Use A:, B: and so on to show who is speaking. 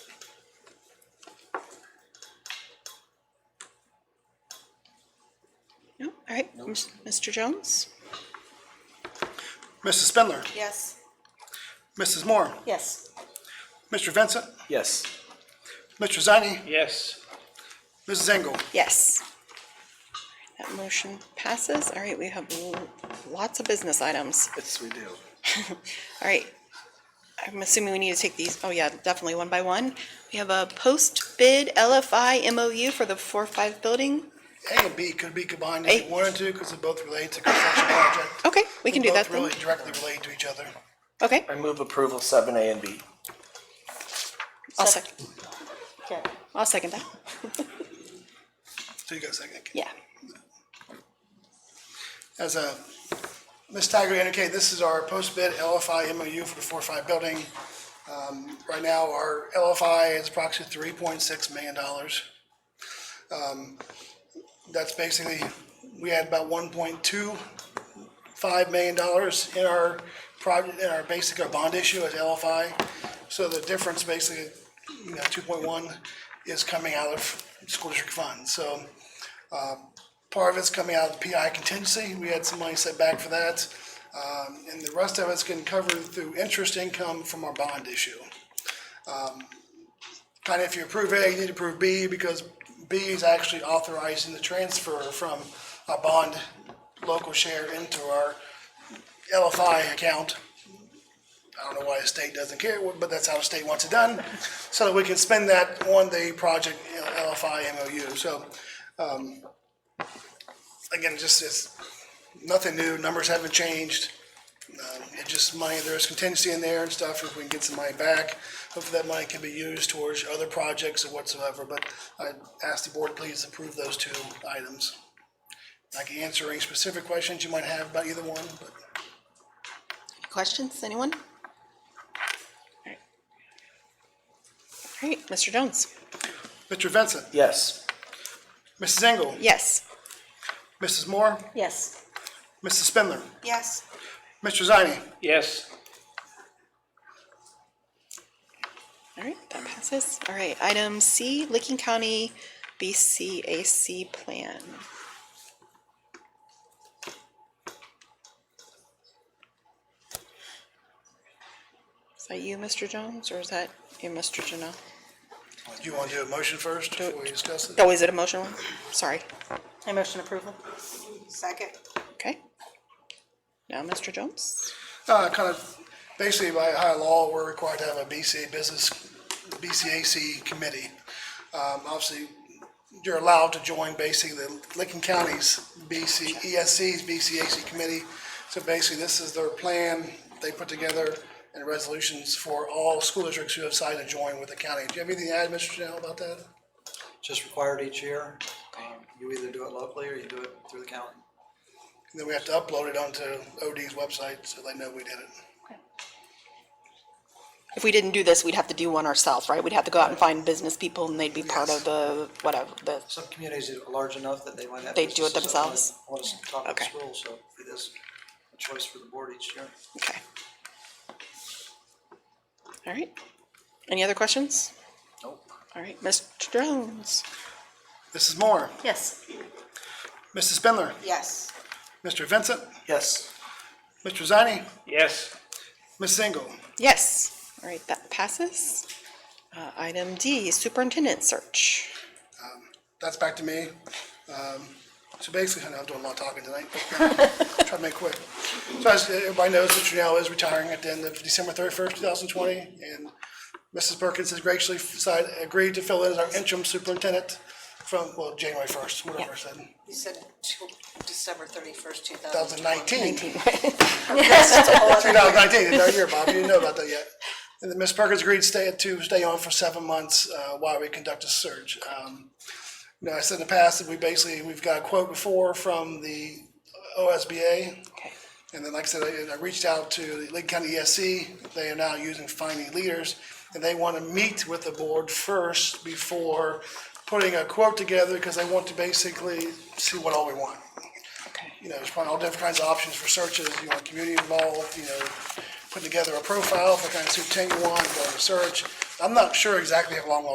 A: All right, Ms- Mr. Jones?
B: Mrs. Spindler,
A: Yes.
B: Mrs. Moore,
A: Yes.
B: Mr. Vincent,
C: Yes.
B: Mr. Zani,
C: Yes.
B: Mrs. Engel.
A: Yes. That motion passes. All right, we have l- lots of business items.
C: Yes, we do.
A: All right. I'm assuming we need to take these, oh yeah, definitely one by one. We have a post-bid LFI MOU for the four-five building.
B: A and B could be combined if
A: A.
B: you wanted to, because they both relate to construction project.
A: Okay, we can do that
B: Both really
A: then.
B: directly relate to each other.
A: Okay,
C: I move approval seven A and B.
A: I'll second, I'll second that.
B: So you got a second.
A: Yeah.
B: As a, Ms. Tiger indicated, this is our post-bid LFI MOU for the four-five building. Um, Right now, our LFI is approximately three point six million dollars. Um, That's basically, we had about one point two five million dollars in our project, in our basic, our bond issue as LFI. So the difference basically, you know, two point one is coming out of school district funds. So Part of it's coming out of the PI contingency, we had some money set back for that. Um, and the rest of it's getting covered through interest income from our bond issue. Kind of if you approve A, you need to approve B, because B is actually authorizing the transfer from a bond local share into our LFI account. I don't know why the state doesn't care, but that's how the state wants it done, so that we can spend that on the project LFI MOU, so again, just, it's nothing new, numbers haven't changed. Um, It just money, there's contingency in there and stuff, if we can get some money back, hopefully that money can be used towards other projects or whatsoever, but I ask the board please approve those two items. I can answer any specific questions you might have about either one, but
A: Questions, anyone? All right. All right, Mr. Jones?
B: Mr. Vincent,
C: Yes.
B: Mrs. Engel,
A: Yes.
B: Mrs. Moore,
A: Yes.
B: Mrs. Spindler,
A: Yes.
B: Mr. Zani,
C: Yes.
A: All right, that passes. All right, item C, Licking County BCAC plan. Is that you, Mr. Jones, or is that you, Mr. Janelle?
B: do you want to do a motion first before we discuss it?
A: Oh, is it a motion one? Sorry.
D: I motion approval. Second.
A: Okay. Now, Mr. Jones?
B: Uh, kind of, basically by high law, we're required to have a BCA business, BCAC committee. Um, obviously, you're allowed to join basically the Licking County's E BC, ESC's BCAC committee. So basically, this is their plan they put together and resolutions for all school districts who have decided to join with the county. Do you have anything to add, Mr. Janelle, about that?
E: just required each year. Um, You either do it locally or you do it through the county.
B: And then we have to upload it onto OD's website so they know we did it.
A: If we didn't do this, we'd have to do one ourselves, right? We'd have to go out and find business people and they'd be part of the, whatever, the,
E: Some communities are large enough that they might have.
A: They do it
E: businesses that want-
A: themselves?
E: Want us to talk to the
A: Okay.
E: school, so it is a choice for the board each year.
A: okay. All right. Any other questions?
E: Nope.
A: All right, Mr. Jones?
B: Mrs. Moore,
D: Yes.
B: Mrs. Spindler,
D: Yes.
B: Mr. Vincent,
C: Yes.
B: Mr. Zani,
C: Yes.
B: Ms. Engel.
A: Yes. All right, that passes. Uh, item D, superintendent search.
B: that's back to me. Um, so basically, I'm doing a lot of talking tonight, but try to make it quick. So as everybody knows, Mr. Janelle is retiring at the end of December thirty-first, two thousand twenty, and Mrs. Perkins has graciously decided, agreed to fill in as our interim superintendent from, well, January first, whatever I said,
D: You said until December thirty-first, two
B: two
D: thousand.
B: thousand nineteen.
D: Yes.
B: 2019, it's our year, Bob, you didn't know about that yet. And then Ms. Perkins agreed to stay, to stay on for seven months uh, while we conduct a search. Um, You know, I said in the past that we basically, we've got a quote before from the OSBA. And then, like I said, I- I reached out to the Lake County ESC, they are now using finding leaders, and they want to meet with the board first before putting a quote together, because they want to basically see what all we want you know, there's probably all different kinds of options for searches, you want community involved, you know, putting together a profile for kind of superintendent you want, going to search. I'm not sure exactly how long I'll